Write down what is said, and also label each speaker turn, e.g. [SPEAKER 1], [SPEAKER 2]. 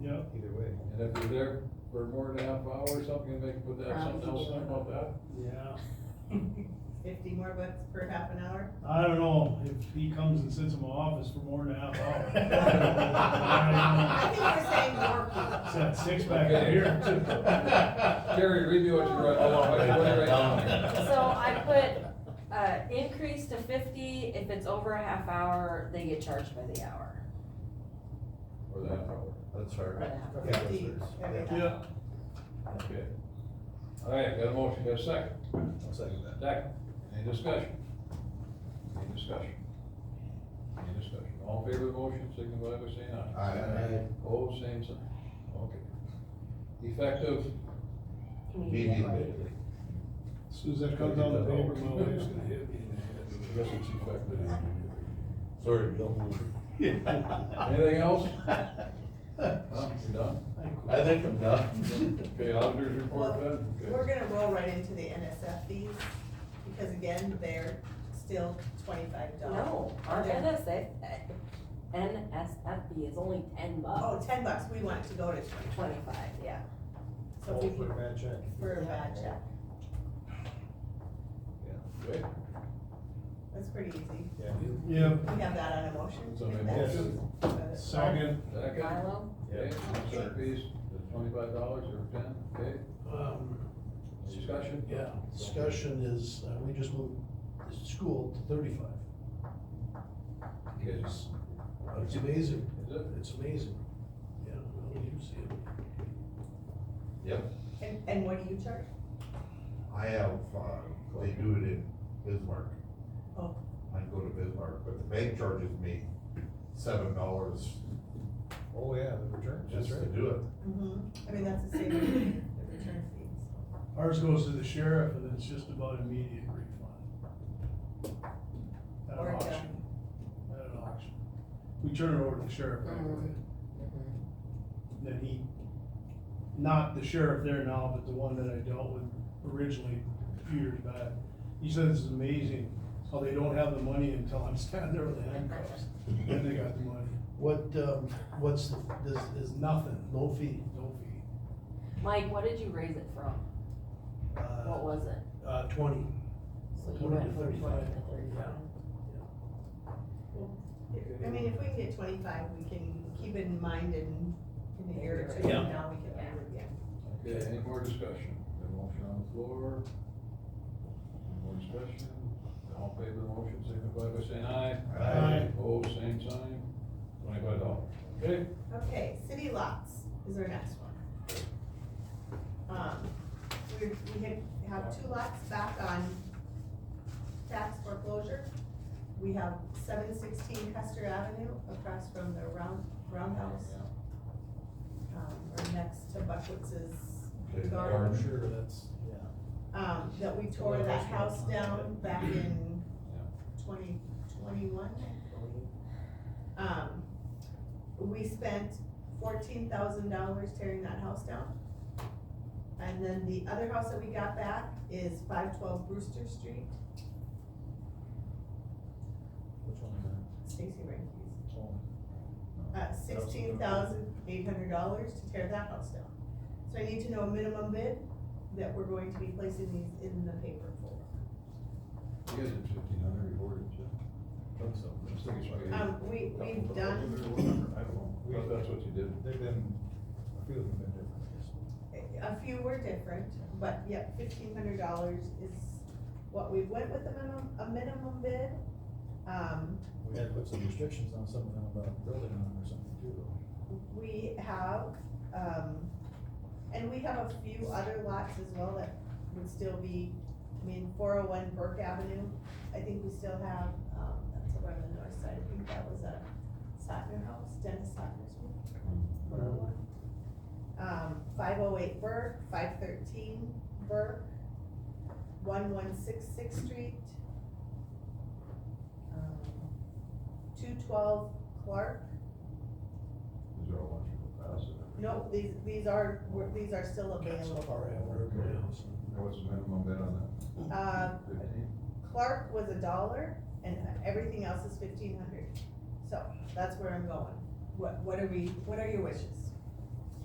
[SPEAKER 1] Yeah.
[SPEAKER 2] either way.
[SPEAKER 3] And if you're there for more than a half hour or something, they can put that, something else in about that.
[SPEAKER 1] Yeah,
[SPEAKER 4] Fifty more bucks per half an hour?
[SPEAKER 1] I don't know, if he comes and sits in my office for more than a half hour.
[SPEAKER 4] I think we're saying more
[SPEAKER 1] It's
[SPEAKER 4] people.
[SPEAKER 1] that six pack up here.
[SPEAKER 3] Terry, read me what you wrote.
[SPEAKER 5] Hold on,
[SPEAKER 3] What you wrote right now.
[SPEAKER 5] down.
[SPEAKER 6] So I put, uh, increase to fifty, if it's over a half hour, they get charged by the hour.
[SPEAKER 3] Or the half hour.
[SPEAKER 5] That's her.
[SPEAKER 6] Right.
[SPEAKER 5] Yeah, that's
[SPEAKER 4] Fifty
[SPEAKER 5] hers.
[SPEAKER 4] every
[SPEAKER 5] Yeah.
[SPEAKER 4] hour.
[SPEAKER 3] Okay. All right, got a motion, got a second.
[SPEAKER 5] I'll second that.
[SPEAKER 3] Second, any discussion? Any discussion? Any discussion? All in favor of the motion, signify by saying aye.
[SPEAKER 5] Aye.
[SPEAKER 3] Oh, same sign. Okay. Effective,
[SPEAKER 5] Immediately.
[SPEAKER 1] As Soon as that comes on the paper, my wife's gonna hit me.
[SPEAKER 3] I guess it's effective.
[SPEAKER 5] Sorry, Bill.
[SPEAKER 3] Anything else? Huh? You done?
[SPEAKER 5] I think I'm done.
[SPEAKER 3] Okay, auditors report
[SPEAKER 4] Well,
[SPEAKER 3] done?
[SPEAKER 4] we're gonna roll right into the NSF fees, because again, they're still twenty-five dollars.
[SPEAKER 6] No, our NSA, uh, NSFB is only ten
[SPEAKER 4] Oh,
[SPEAKER 6] bucks,
[SPEAKER 4] ten bucks, we want it to go to twenty-five,
[SPEAKER 6] twenty-five, yeah.
[SPEAKER 4] so
[SPEAKER 7] Oh,
[SPEAKER 4] if we,
[SPEAKER 2] bad check.
[SPEAKER 4] for a bad check,
[SPEAKER 3] Okay.
[SPEAKER 4] that's pretty easy.
[SPEAKER 2] Yeah.
[SPEAKER 1] Yeah,
[SPEAKER 4] We have that on a motion.
[SPEAKER 3] So maybe
[SPEAKER 4] That's-
[SPEAKER 3] motion.
[SPEAKER 4] uh,
[SPEAKER 1] second,
[SPEAKER 3] Second,
[SPEAKER 6] Milo?
[SPEAKER 3] okay, insert fees, twenty-five dollars or ten, okay,
[SPEAKER 7] Um,
[SPEAKER 3] discussion?
[SPEAKER 7] yeah, discussion is, uh, we just moved the school to thirty-five.
[SPEAKER 3] Yes.
[SPEAKER 7] It's, it's amazing,
[SPEAKER 3] Is it?
[SPEAKER 7] it's amazing, yeah, I don't even see it.
[SPEAKER 4] And, and what do you charge?
[SPEAKER 5] I have, uh, they do it in Bismarck.
[SPEAKER 4] Oh.
[SPEAKER 5] I go to Bismarck, but the bank charges me seven dollars
[SPEAKER 2] Oh, yeah, the return,
[SPEAKER 5] just
[SPEAKER 2] that's
[SPEAKER 5] to
[SPEAKER 2] right.
[SPEAKER 5] do it.
[SPEAKER 4] Mm-hmm. I mean, that's the same thing, the return fees.
[SPEAKER 1] ours goes to the sheriff, and it's just about immediate refund. At an
[SPEAKER 4] Or uh, a
[SPEAKER 1] auction, at an auction. We turn it over to the sheriff right away. Then he, not the sheriff there now, but the one that I dealt with originally a few years back. He said it's amazing how they don't have the money until I'm standing there with the handcuffs, then they got the money.
[SPEAKER 7] What, um, what's, the- this is nothing, no fee, no fee.
[SPEAKER 6] Mike, what did you raise it from?
[SPEAKER 7] Uh,
[SPEAKER 6] What was it?
[SPEAKER 7] Uh, twenty.
[SPEAKER 6] So you
[SPEAKER 7] 20
[SPEAKER 6] went
[SPEAKER 7] to
[SPEAKER 6] from twenty
[SPEAKER 7] 35.
[SPEAKER 6] to thirty-five.
[SPEAKER 4] I mean, if we can get twenty-five, we can keep it in mind in, in the year or two,
[SPEAKER 7] Yeah.
[SPEAKER 4] and now we can do it again.
[SPEAKER 3] Okay, any more discussion? Got a motion on the floor? Any more discussion? All in favor of the motion, signify by saying aye.
[SPEAKER 7] Aye.
[SPEAKER 3] Opposed, same sign, twenty-five dollars, okay?
[SPEAKER 4] Okay, city lots is our next one. Um, we, we had, have two lots back on tax foreclosure. We have seven sixteen Custer Avenue across from the round, roundhouse. Um, or next to
[SPEAKER 5] Okay,
[SPEAKER 4] Buckwitz's
[SPEAKER 5] garden.
[SPEAKER 4] garden.
[SPEAKER 5] I'm sure
[SPEAKER 7] that's, yeah.
[SPEAKER 4] Um, that we tore that house down back in twenty twenty-one. Um, we spent fourteen thousand dollars tearing that house down. And then the other house that we got back is five twelve Brewster Street,
[SPEAKER 2] Which one
[SPEAKER 4] Stacy Rankies.
[SPEAKER 2] is that?
[SPEAKER 4] Uh, sixteen thousand eight hundred dollars to tear that house down. So I need to know a minimum bid that we're going to be placing these in the paper for.
[SPEAKER 3] You guys did fifteen hundred, you ordered it.
[SPEAKER 2] Think so.
[SPEAKER 3] Just think it's like-
[SPEAKER 4] Um, we, we've done
[SPEAKER 2] I don't know.
[SPEAKER 3] Well,
[SPEAKER 2] We-
[SPEAKER 3] that's what you did.
[SPEAKER 2] They've been, a few of them have been different.
[SPEAKER 4] A few were different, but yep, fifteen hundred dollars is what we went with a minimum, a minimum bid. Um,
[SPEAKER 2] We had to put some restrictions on some of them about building on them or something too, though.
[SPEAKER 4] we have, um, and we have a few other lots as well that would still be, I mean, four oh one Burke Avenue. I think we still have, um, that's over on the north side, I think that was a Sotner house, Dennis Sotner's one. Um, five oh eight Burke, five thirteen Burke, one one six six Street, um, two twelve Clark.
[SPEAKER 3] Is there a lot you could pass it?
[SPEAKER 4] No, these, these are, were- these are still
[SPEAKER 7] Okay, so
[SPEAKER 4] available.
[SPEAKER 7] far I haven't heard of it.
[SPEAKER 3] What's the minimum bid on
[SPEAKER 4] Uh,
[SPEAKER 3] that? Fifteen?
[SPEAKER 4] Clark was a dollar and everything else is fifteen hundred. So that's where I'm going. What, what are we, what are your wishes?